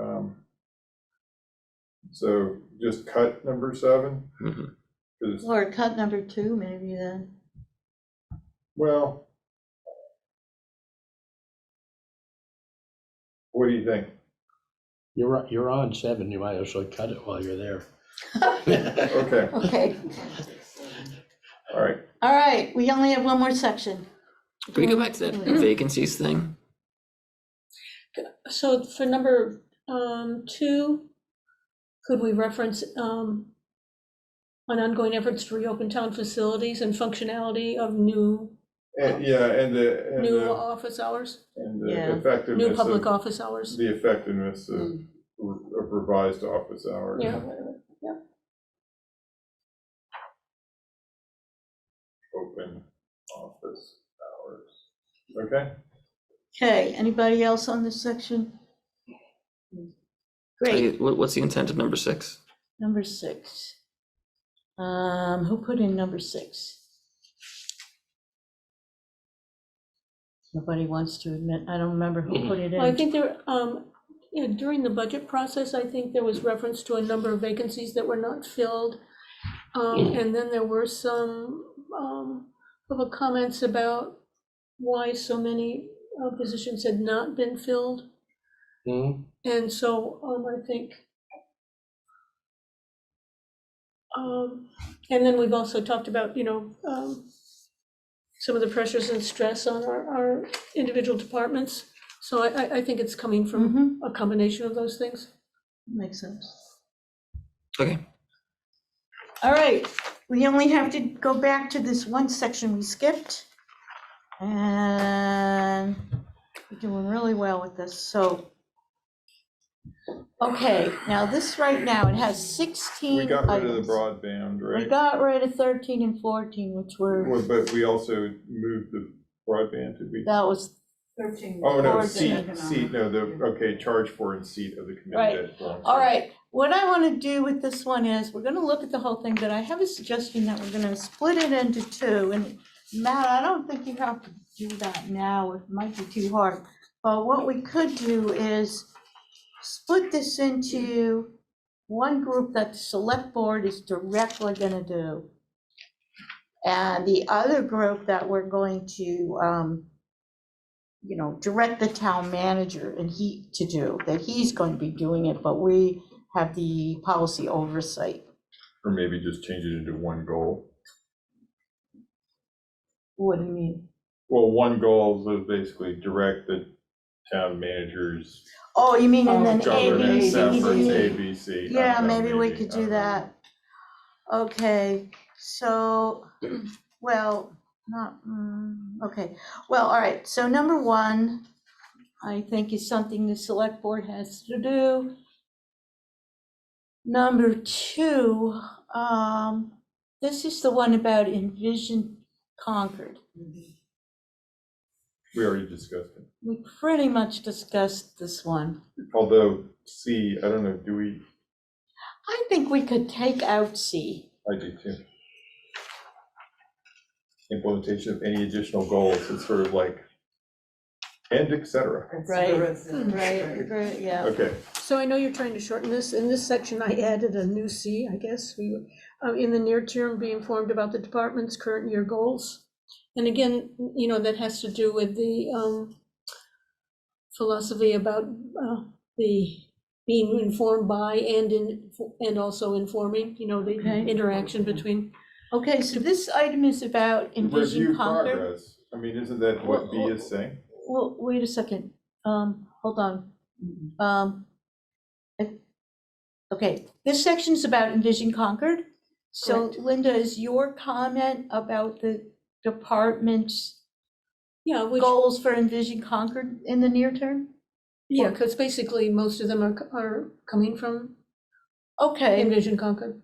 Um, So just cut number seven? Mhm. Because, Or cut number two, maybe then. well. What do you think? You're, on- you're on seven, you might as well cut it while you're there. Okay, Okay, all right. all right, we only have one more section. Can we go back to that Mm. vacancies thing? So for number um, two, could we reference um, on ongoing efforts to reopen town facilities and functionality of new, And, yeah, and the, and new the, office hours? and the Yeah. New effectiveness public of, office hours? the effectiveness of of revised office hours. Yeah, whatever. Open office hours. Okay, Okay, anybody else on this section? Great, Like, What, what's the intent of number six? number six. Um, who put in number six? Nobody wants to admit, I don't remember who put it Mm-hmm. Well, I in. think there, um, you know, during the budget process, I think there was reference to a number of vacancies that were not filled. Um, and then there were some, um, public comments about why so many uh, positions had not been filled. Hmm? And so, um, I think. Um, and then we've also talked about, you know, um, some of the pressures and stress on our, our individual departments. So I, I, I think it's coming from Mhm, a combination of those things. Makes sense. Okay, All right, we only have to go back to this one section we skipped. And we're doing really well with this, so. Okay, now this right now, it has 16 we got rid of items. the broadband, We right? got rid of 13 and 14, which were, Well, But we also moved the broadband, did we? that was, Oh, no, Or seat, economic. seat, no, the, okay, charge for and seat of the committee. Right. that belongs all to- right. What I want to do with this one is, we're going to look at the whole thing, but I have a suggestion that we're going to split it into two. And Matt, I don't think you have to do that now, it might be too hard. But what we could do is split this into one group that the select board is directly gonna do. And the other group that we're going to, um, you know, direct the town manager and he to do, that he's going to be doing it, but we have the policy oversight. Or maybe just change it into one goal. What do you mean? Well, one goal is basically direct the town managers. Oh, you mean and then A, B, governance C, D, efforts, E. A, B, C. I Yeah, don't know, maybe we could I do don't know. that. Okay, so, well, not, mm, okay, well, all right, so number one, I think is something the select board has to do. Number two, um, this is the one about envision Concord. We already discussed it. We pretty much discussed this one. Although C, I don't know, do we, I think we could take out C. I do too. Implementation of any additional goals, it's sort of like, and et cetera. Right. Right. Right, yeah. Okay, So I know you're trying to shorten this. In this section, I added a new C, I guess. We, uh, in the near term, be informed about the department's current year goals. And again, you know, that has to do with the um, philosophy about uh, the being informed by and in, and also informing, you know, the Okay. interaction between. Okay, so this item is about review envision Concord. progress. I mean, isn't that what B is saying? Well, wait a second, um, hold on. Um, I- Okay, this section is about envision Concord. So Correct. Linda, is your comment about the department's Yeah, which, goals for envision Concord in the near term? yeah, because basically most of them are, are coming from Okay, Envision Concord.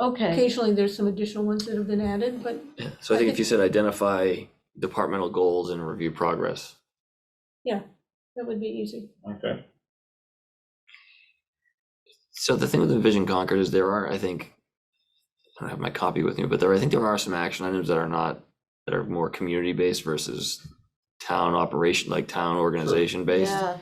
okay, Occasionally, there's some additional ones that have been added, but yeah, so I think if you said identify departmental goals and review progress. that would be easy. Okay, So the thing with Envision Concord is there are, I think, I don't have my copy with me, but there, I think there are some action items that are not, that are more community based versus town operation, like town organization based. yeah.